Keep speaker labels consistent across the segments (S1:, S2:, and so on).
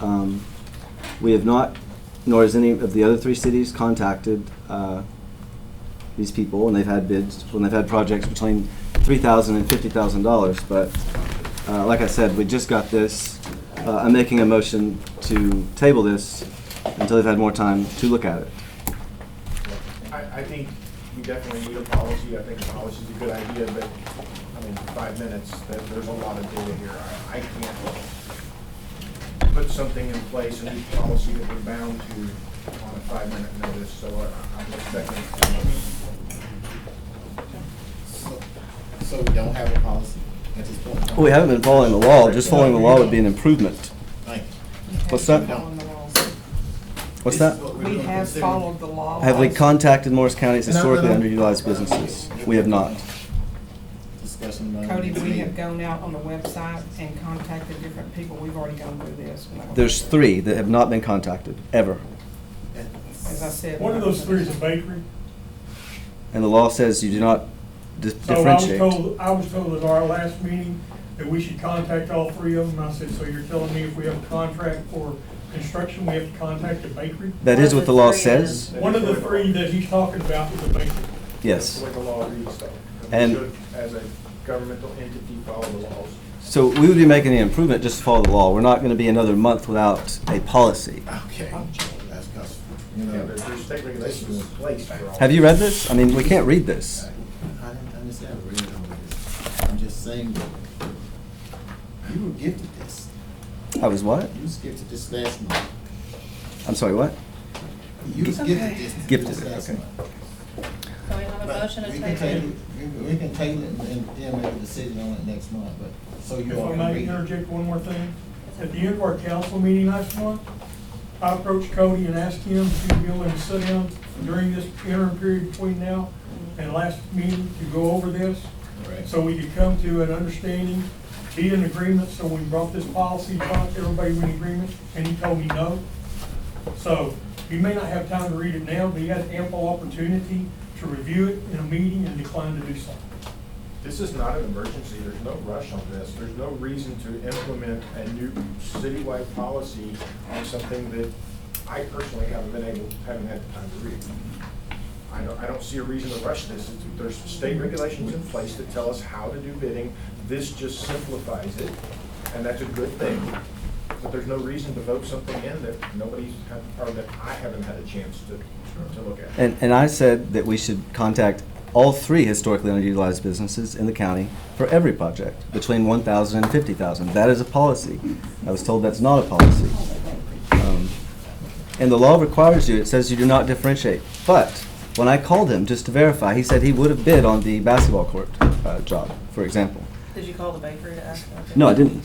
S1: Um, We have not, nor has any of the other three cities contacted uh, these people, and they've had bids, when they've had projects between $3,000 and $50,000. But uh, like I said, we just got this. Uh, I'm making a motion to table this until they've had more time to look at it.
S2: I, I think we definitely need a policy, I think a policy's a good idea, but, I mean, five minutes, there, there's a lot of data here, I, I can't put something in place, a new policy that we're bound to on a five-minute notice, so I- I'm expecting.
S3: So- So we don't have a policy at this point? in time?
S1: We haven't been following the law. Just following the law would be an improvement.
S3: Thank you.
S1: What's that?
S3: Following
S1: What's
S3: This
S1: that?
S3: is what
S4: We
S3: we're gonna
S4: have
S3: consider.
S4: followed the law.
S1: Have we contacted Morris County's
S3: And I'm
S1: historically
S3: gonna-
S1: underutilized businesses? We have not.
S3: Discussion. among
S4: Cody, we have
S3: the-
S4: gone out on the website and contacted different people. We've already gone through this. We're not gonna-
S1: There's three that have not been contacted, ever.
S4: As I said.
S5: One of those three is a bakery.
S1: And the law says you do not dis-
S5: So I was
S1: differentiate.
S5: told, I was told at our last meeting that we should contact all three of them. I said, so you're telling me if we have a contract for construction, we have to contact the bakery?
S1: That is what the law says,
S5: One of the three that he's talking about is a bakery.
S2: That's
S1: yes.
S2: the way the law reads, though.
S1: And-
S2: We should, as a governmental entity, follow the laws.
S1: So we would be making an improvement just to follow the law. We're not going to be another month without a policy.
S3: Okay, that's, 'cause, you
S2: Yeah,
S3: know.
S2: there's, there's state regulations in place for all.
S1: Have you read this? I mean, we can't read this.
S3: I didn't understand, I really don't understand. I'm just saying that you were gifted this.
S1: I was what?
S3: You was gifted this last month.
S1: I'm sorry, what?
S3: You was gifted this.
S1: Gifted
S3: this
S1: it,
S3: last
S1: okay.
S3: month.
S6: So we have a
S3: But
S6: motion to
S3: we can
S6: table.
S3: We we can table it and and then make a decision on it next month, but, so you
S5: If
S3: all
S5: I
S3: can read
S5: may
S3: it.
S5: interject one more thing, at the end of our council meeting last month, I approached Cody and asked him to be willing to sit down during this interim period between now and last meeting to go over this.
S3: All right.
S5: So we could come to an understanding, be in agreement, so we brought this policy, talked to everybody in agreement, and he told me no. So he may not have time to read it now, but he had ample opportunity to review it in a meeting and declined to do so.
S2: This is not an emergency, there's no rush on this, there's no reason to implement a new citywide policy on something that I personally haven't been able, haven't had the time to read. I don't, I don't see a reason to rush this, It's- there's state regulations in place that tell us how to do bidding, this just simplifies it, and that's a good thing. But there's no reason to vote something in that nobody's, had- or that I haven't had a chance to, to look at.
S1: And, and I said that we should contact all three historically underutilized businesses in the county for every project, between 1,000 and 50,000. That is a policy. I was told that's not a policy. Um, And the law requires you, it says you do not differentiate. But when I called him just to verify, he said he would have bid on the basketball court uh, job, for example.
S6: Did you call the bakery to ask? them?
S1: No, I didn't.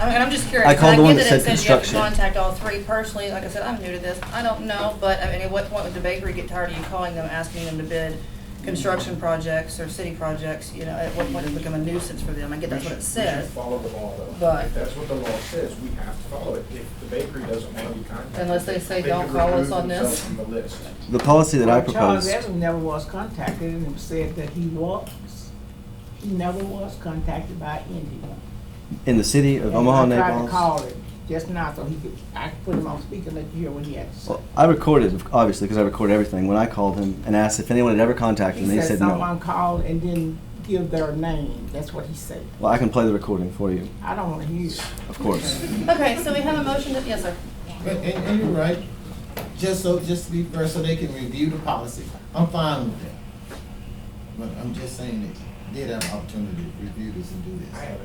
S6: I mean, I'm just curious.
S1: I called the one
S6: get
S1: that
S6: it
S1: said
S6: says you have to
S1: construction.
S6: Contact all three personally. Like I said, I'm new to this. I don't know, but I mean, at what point would the bakery get tired of you calling them, asking them to bid construction projects or city projects? You know, at what point does it become a nuisance for them? I get that's what it
S2: We should
S6: says.
S2: follow the law, though.
S6: But-
S2: If that's what the law says, we have to follow it. If the bakery doesn't want to be contacted.
S6: Unless they say,
S2: could
S6: "Don't call us
S2: remove
S6: on this."
S2: themselves from the list.
S1: The policy that I
S7: Well, Charles
S1: proposed,
S7: Evans never was contacted and said that he was, he never was contacted by anyone.
S1: in the city of Omaha,
S7: And I tried
S1: Naples.
S7: to call him just now, so he could, I could put him on speaker and let you hear what he had to say.
S1: Well, I recorded, obviously, because I record everything, when I called him and asked if anyone had ever contacted
S7: He
S1: him, he
S7: said
S1: said no.
S7: someone called and didn't give their name, that's what he said.
S1: Well, I can play the recording for you,
S7: I don't wanna hear. it.
S1: of course.
S6: Okay, so we have a motion to, yes, sir.
S3: And, and, and you're right, just so, just to be fair, so they can review the policy, I'm fine with that. But I'm just saying that they had an opportunity to review this and
S2: I
S3: do this.
S2: haven't.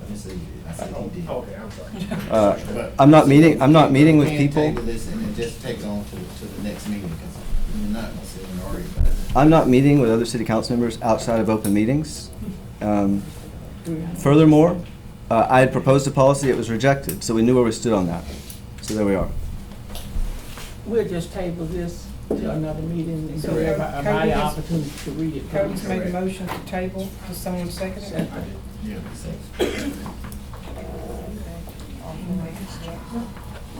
S3: Let me say, I said
S2: Oh,
S3: he did.
S2: Okay, I'm sorry.
S1: Uh,
S3: But-
S1: I'm not meeting- I'm not meeting with
S3: We can
S1: people.
S3: table this and then just take it on to, to the next meeting, because we're not gonna sit and argue about it.
S1: I'm not meeting with other city council members outside of open meetings. Um, Furthermore, uh, I had proposed a policy, it was rejected, so we knew where we stood on that. So there we are.
S7: We'll just table this to another meeting and
S4: So
S7: give everybody
S4: Cody
S7: an
S4: has-
S7: opportunity to read it.
S4: Cody's
S7: please.
S4: made a motion to table. Does someone second it?
S2: I did.
S3: Yeah, so-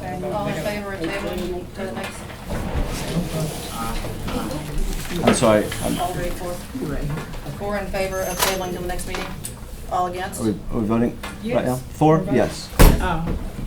S6: All in favor of tabling to the next,
S1: I'm sorry, I'm-
S6: all three, four? Four in favor of tabling to the next meeting? All against?
S1: are we are we voting right now?
S4: Yes.
S1: Four, yes.
S7: Uh,